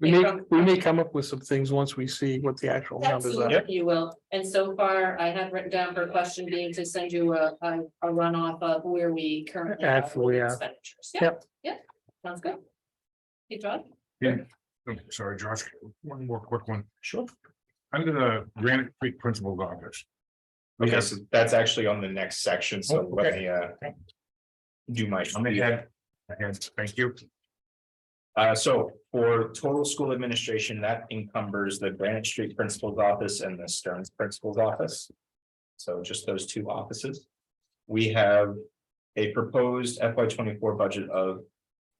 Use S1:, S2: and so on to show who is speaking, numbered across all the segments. S1: We may, we may come up with some things once we see what the actual numbers are.
S2: Absolutely, you will. And so far, I had written down for question being to send you a, a, a runoff of where we currently. are with
S1: Actually, yeah.
S2: Expenditures. Yep, yep, sounds good. Hey, John?
S3: Oh, Sorry, Josh, one more quick one.
S1: Sure.
S3: Under the Granite Creek Principal's Office.
S4: Okay, so that's actually on the next section, so
S3: Oh,
S4: let
S3: okay.
S4: me uh. Do my.
S3: I'm ahead. Ahead, Thank you.
S4: Uh, so for total school administration, that encumbers the Granite Street Principal's Office and the Stearns Principal's Office. So just those two offices. We have a proposed FY twenty-four budget of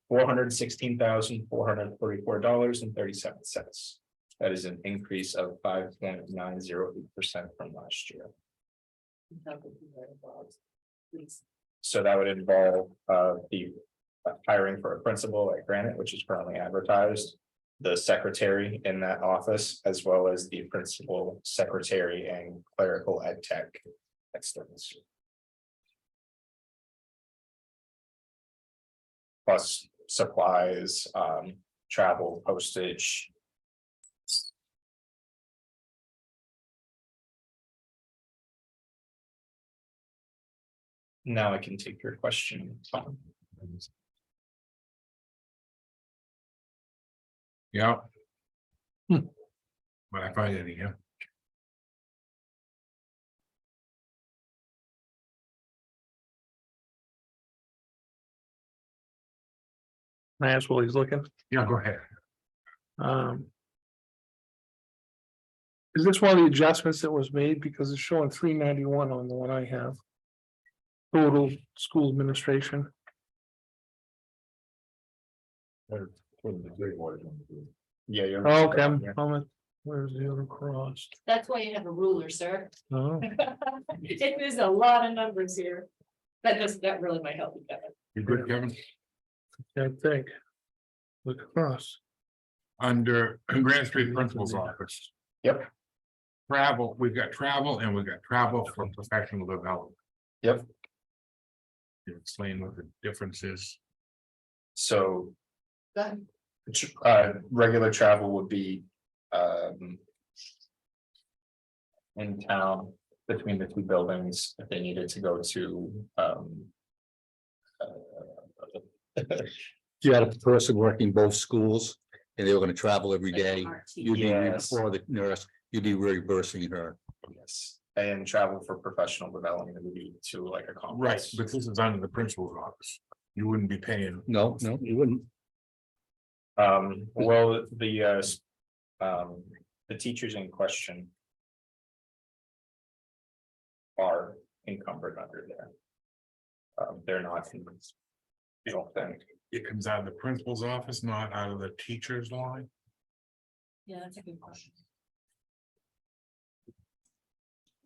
S4: four hundred sixteen thousand, four hundred thirty-four dollars and thirty-seven cents. That is an increase of five point nine zero eight percent from last year.
S2: Please.
S4: So that would involve uh the uh, hiring for a principal at Granite, which is currently advertised. The secretary in that office, as well as the principal secretary and clerical ed tech. externs. Plus supplies, um, travel, postage. Now I can take your question. Tom.
S3: Yeah.
S1: Hmm.
S3: When I find any, yeah.
S1: And That's what he's looking.
S3: Yeah, go ahead.
S1: Um. Is this one of the adjustments that was made? Because it's showing three ninety-one on the one I have. Total school administration.
S4: Yeah, you're.
S1: Oh, Okay, I'm, I'm at- where's the other cross?
S2: That's why you have a ruler, sir.
S1: Oh,
S2: It is a lot of numbers here. That does, that really might help you, Kevin.
S3: You're good, Kevin.
S1: I think. Look across.
S3: Under Granite Street Principal's Office.
S4: Yep.
S3: Travel, we've got travel and we've got travel for professional development.
S4: Yep.
S3: You Explain what the difference is.
S4: So
S2: Go ahead.
S4: tr- uh, regular travel would be, um. In town between the two buildings, if they needed to go to, um. uh,
S5: If you had a person working both schools and they were gonna travel every day, you'd be, re-
S4: Yes.
S5: or the nurse, you'd be reimbursing her.
S4: Yes, and travel for professional development would be to like a
S3: Right,
S4: conference.
S3: but this is under the principal's office. You wouldn't be paying.
S5: No, no, you wouldn't.
S4: Um, well, the, uh, s- um, the teachers in question. Are encumbered under there. Um, they're not. in this- You don't think.
S3: It comes out of the principal's office, not out of the teacher's line.
S2: Yeah, that's a good question.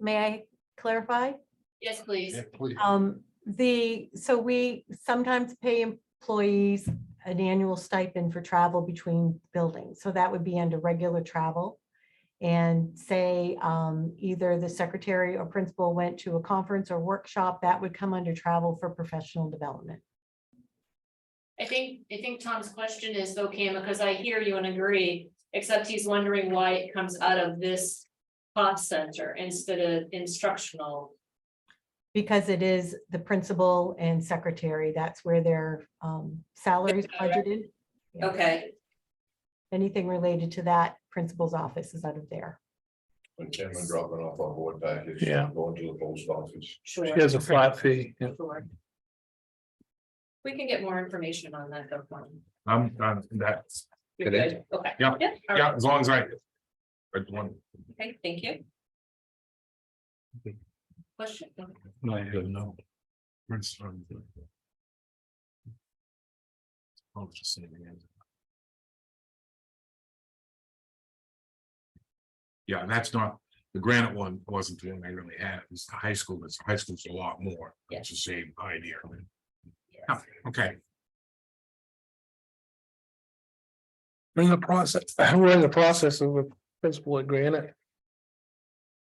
S6: May I clarify?
S2: Yes, please.
S3: Yeah, please.
S6: Um, the, so we sometimes pay employees an annual stipend for travel between buildings. So that would be under regular travel. And say, um, either the secretary or principal went to a conference or workshop, that would come under travel for professional development.
S2: I think, I think Tom's question is though, Cam, because I hear you and agree, except he's wondering why it comes out of this cost center instead of instructional.
S6: Because it is the principal and secretary, that's where their, um, salaries budgeted. Yeah.
S2: Okay,
S6: Anything related to that principal's office is out of there.
S7: When Kim and dropping off our board package.
S1: Yeah.
S7: Going to the post office.
S2: sure.
S1: She has a flat fee. yeah.
S2: Sure. We can get more information on that though. Tom.
S3: I'm, I'm, that's,
S2: You're good, okay.
S3: Yeah.
S2: all right.
S3: yeah, as long as I. I want,
S2: Okay, thank you. Question?
S3: I don't know. Prince, um, I'll just say it again. Yeah, and that's not, the granite one wasn't the one I really had, it was the high school, it's high school's a lot more, it's the same idea. Yeah, Okay.
S1: We're in the process, we're in the process of a principal at Granite.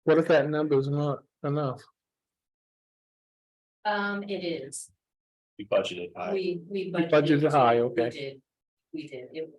S1: What if that number is not enough?
S2: Um, it is,
S4: We budgeted high.
S2: we, we.
S1: budgeted high, okay.
S2: We did, we did, it